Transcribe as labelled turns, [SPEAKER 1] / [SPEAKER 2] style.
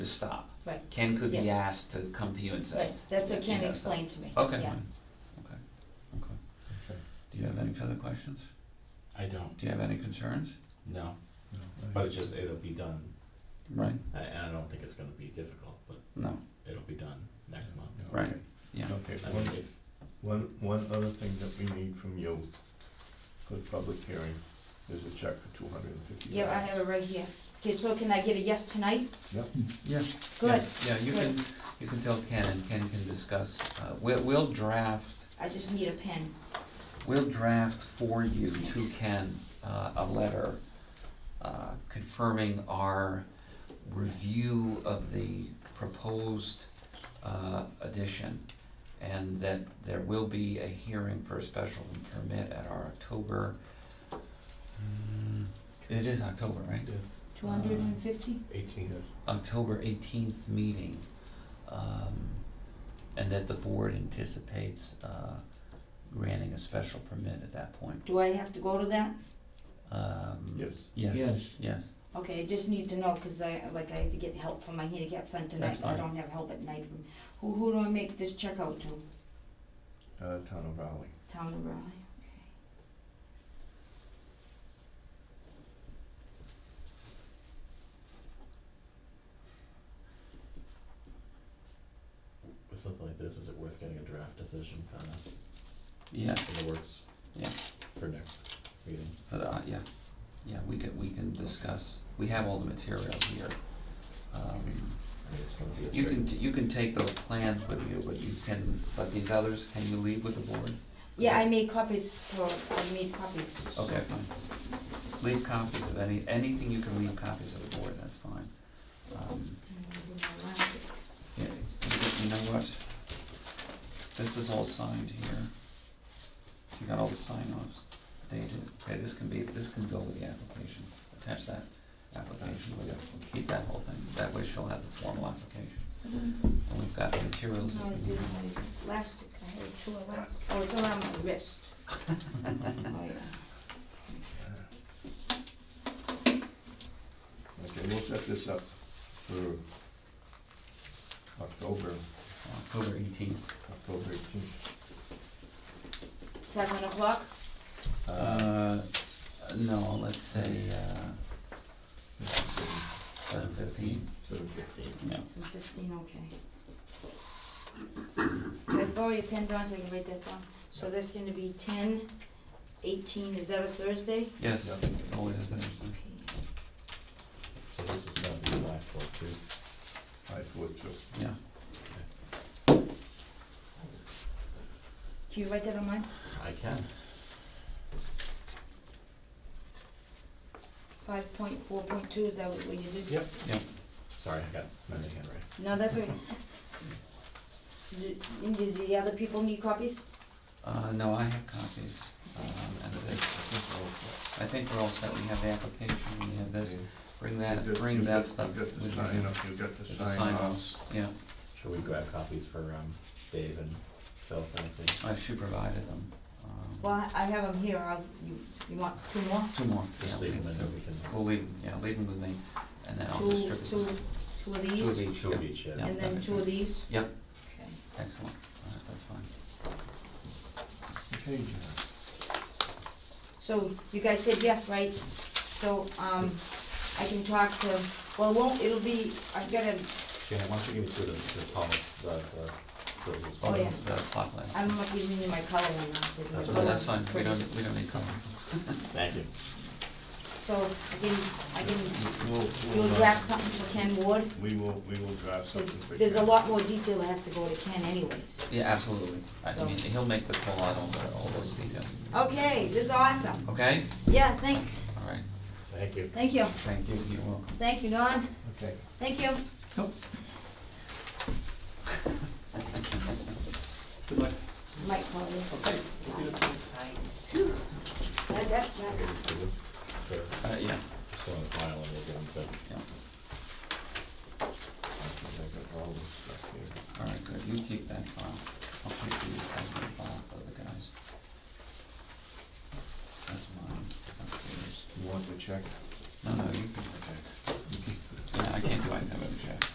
[SPEAKER 1] to stop.
[SPEAKER 2] Right.
[SPEAKER 1] Ken could be
[SPEAKER 2] Yes.
[SPEAKER 1] asked to come to you and say.
[SPEAKER 2] Right, that's what Ken
[SPEAKER 1] Yeah.
[SPEAKER 2] explained to me.
[SPEAKER 1] Okay,
[SPEAKER 2] Yeah.
[SPEAKER 1] okay, okay. Do you have any further questions?
[SPEAKER 3] I don't,
[SPEAKER 1] Do you have any concerns?
[SPEAKER 3] no,
[SPEAKER 4] No,
[SPEAKER 3] but it's just, it'll be done,
[SPEAKER 1] Right.
[SPEAKER 3] I- and I don't think it's gonna be difficult, but
[SPEAKER 1] No,
[SPEAKER 3] it'll be done next month.
[SPEAKER 4] no,
[SPEAKER 1] Right.
[SPEAKER 4] okay.
[SPEAKER 1] yeah,
[SPEAKER 4] Okay,
[SPEAKER 3] I
[SPEAKER 4] one,
[SPEAKER 3] mean, if,
[SPEAKER 4] one, one other thing that we need from you for the public hearing is a check for two hundred and fifty
[SPEAKER 2] Yeah, I
[SPEAKER 4] dollars.
[SPEAKER 2] have it right here. Okay, so can I get a yes tonight?
[SPEAKER 1] yeah.
[SPEAKER 2] Good.
[SPEAKER 1] Yeah, yeah, you can, you can tell Ken and Ken can discuss, uh, we'll, we'll draft,
[SPEAKER 2] I just need a pen.
[SPEAKER 1] we'll draft for you to
[SPEAKER 2] Thanks.
[SPEAKER 1] Ken, uh, a letter uh, confirming our review of the proposed, uh, addition. And that there will be a hearing for a special permit at our October, mm, it is October, right?
[SPEAKER 3] yes,
[SPEAKER 2] Two hundred and fifty?
[SPEAKER 3] eighteen,
[SPEAKER 1] October eighteenth meeting, um, and that the board anticipates, uh, granting a special permit at that point.
[SPEAKER 2] Do I have to go to that?
[SPEAKER 1] Um,
[SPEAKER 4] Yes,
[SPEAKER 1] Yes,
[SPEAKER 5] Yes,
[SPEAKER 1] yes,
[SPEAKER 2] Okay, I just need to know, cause I, like, I had to get help for my handicap son tonight.
[SPEAKER 1] That's
[SPEAKER 2] I
[SPEAKER 1] fine.
[SPEAKER 2] don't have help at night. Who, who do I make this check out to?
[SPEAKER 4] uh, Town of Raleigh.
[SPEAKER 2] Town of Raleigh,
[SPEAKER 3] with something like this, is it worth getting a draft decision kinda
[SPEAKER 1] yeah,
[SPEAKER 3] in the works?
[SPEAKER 1] Yeah.
[SPEAKER 3] For next meeting,
[SPEAKER 1] for the, uh, yeah, yeah, we can, we can discuss, we have all the material here. Um,
[SPEAKER 3] I mean, it's gonna be a
[SPEAKER 1] You can,
[SPEAKER 3] straight,
[SPEAKER 1] t- you can take those plans with you, but you can, but these others, can you leave with the board?
[SPEAKER 2] Yeah, I made copies for, I made copies. so-
[SPEAKER 1] Okay, fine. Leave copies of any, anything you can leave copies of the board, that's fine. Um,
[SPEAKER 2] I'm gonna do my last.
[SPEAKER 1] Yeah, you know what? This is all signed here. You got all the sign offs dated. Okay, this can be, this can go with the application. Attach that application with it. Keep that whole thing. That way she'll have the formal application. And we've got the materials.
[SPEAKER 2] No,
[SPEAKER 1] that
[SPEAKER 2] I
[SPEAKER 1] we
[SPEAKER 2] did
[SPEAKER 1] need.
[SPEAKER 2] my elastic, I had two elastic, oh, it's around my wrist. Oh, yeah.
[SPEAKER 4] Okay, we'll set this up for October,
[SPEAKER 1] October eighteenth.
[SPEAKER 4] October eighteenth.
[SPEAKER 2] Seven o'clock,
[SPEAKER 1] Uh, no, let's say, uh, seven fifteen.
[SPEAKER 4] Seven
[SPEAKER 3] fifteen,
[SPEAKER 1] Yeah.
[SPEAKER 2] two fifteen, okay. Can I borrow your pen, Don, so I can write that down? So that's gonna be ten, eighteen, is that a Thursday?
[SPEAKER 1] Yes,
[SPEAKER 4] Yeah.
[SPEAKER 1] always is interesting.
[SPEAKER 2] Okay.
[SPEAKER 3] so this is gonna be live for two.
[SPEAKER 4] five, four, two.
[SPEAKER 1] Yeah.
[SPEAKER 2] Can you write that on mine?
[SPEAKER 3] I can,
[SPEAKER 2] Five point four point two, is that what what you did?
[SPEAKER 3] Yep.
[SPEAKER 1] Yeah.
[SPEAKER 3] sorry, I got messy handwriting.
[SPEAKER 2] No, that's okay. Do, do the other people need copies?
[SPEAKER 1] Uh, no, I have copies, um, and this, I think we're all set, we have the application, we have this, bring
[SPEAKER 4] You've
[SPEAKER 1] that,
[SPEAKER 4] got-
[SPEAKER 1] bring
[SPEAKER 4] you've
[SPEAKER 1] that
[SPEAKER 4] got-
[SPEAKER 1] stuff.
[SPEAKER 4] You've got the
[SPEAKER 1] with you.
[SPEAKER 4] sign up, you've got the
[SPEAKER 1] There's a
[SPEAKER 4] sign
[SPEAKER 1] sign
[SPEAKER 4] offs.
[SPEAKER 1] Yeah,
[SPEAKER 3] Should we grab copies for, um, Dave and Phil, frankly?
[SPEAKER 1] uh, she provided them, um,
[SPEAKER 2] Well, I have them here, I'll, you, you want two more?
[SPEAKER 1] two more, yeah,
[SPEAKER 3] Just
[SPEAKER 1] we
[SPEAKER 3] leave them
[SPEAKER 1] can,
[SPEAKER 3] and
[SPEAKER 1] do-
[SPEAKER 3] then we can,
[SPEAKER 1] we'll leave, them, yeah, leave them with me, and then I'll
[SPEAKER 2] Two,
[SPEAKER 1] distribute
[SPEAKER 2] two,
[SPEAKER 1] them.
[SPEAKER 2] two of
[SPEAKER 1] Two of
[SPEAKER 2] these,
[SPEAKER 1] each,
[SPEAKER 3] two of
[SPEAKER 1] yeah,
[SPEAKER 3] each, yeah.
[SPEAKER 1] Yeah.
[SPEAKER 2] and
[SPEAKER 1] that
[SPEAKER 2] then
[SPEAKER 1] makes
[SPEAKER 2] two of
[SPEAKER 1] sense.
[SPEAKER 2] these?
[SPEAKER 1] Yep.
[SPEAKER 2] Okay.
[SPEAKER 1] excellent, alright, that's fine.
[SPEAKER 4] Okay, John.
[SPEAKER 2] So you guys said yes, right? So, um, I can talk to, well, it won't, it'll be, I've gotta,
[SPEAKER 3] Shannon, why don't you give me two of the, the palm, the, the, those as well?
[SPEAKER 2] Oh, yeah.
[SPEAKER 1] The plot plan.
[SPEAKER 2] I'm not giving you my color one now, because my
[SPEAKER 3] That's
[SPEAKER 1] No,
[SPEAKER 2] color
[SPEAKER 1] that's
[SPEAKER 2] is
[SPEAKER 1] fine, we
[SPEAKER 2] pretty.
[SPEAKER 1] don't, we don't need time.
[SPEAKER 3] Thank you.
[SPEAKER 2] So I can, I can,
[SPEAKER 4] We'll, we'll,
[SPEAKER 2] you'll
[SPEAKER 4] uh,
[SPEAKER 2] draft something for Ken Ward,
[SPEAKER 4] We will, we will draft
[SPEAKER 2] 'cause
[SPEAKER 4] something for you.
[SPEAKER 2] there's a lot more detail that has to go to Ken anyways.
[SPEAKER 1] Yeah, absolutely, I
[SPEAKER 2] So-
[SPEAKER 1] mean, he'll make the call out on the- all those details,
[SPEAKER 2] Okay, this is awesome.
[SPEAKER 1] okay?
[SPEAKER 2] Yeah, thanks.
[SPEAKER 1] Alright,
[SPEAKER 3] Thank you.
[SPEAKER 2] Thank you.
[SPEAKER 1] thank you, you're welcome.
[SPEAKER 2] Thank you, Don.
[SPEAKER 4] Okay.
[SPEAKER 2] Thank you.
[SPEAKER 1] Nope.
[SPEAKER 3] Good luck.
[SPEAKER 2] Mike called you.
[SPEAKER 3] Okay.
[SPEAKER 2] That, that's not
[SPEAKER 3] Okay, so we'll- so
[SPEAKER 1] Uh, yeah,
[SPEAKER 3] just go in the file and we'll get them to.
[SPEAKER 1] yeah.
[SPEAKER 4] I got all this stuff here.
[SPEAKER 1] All right, good, you keep that file, I'll keep these as a file for the guys. That's mine, that's theirs.
[SPEAKER 4] You want the check?
[SPEAKER 1] No, no, you can,
[SPEAKER 4] Okay.
[SPEAKER 1] yeah, I can't do anything with the check.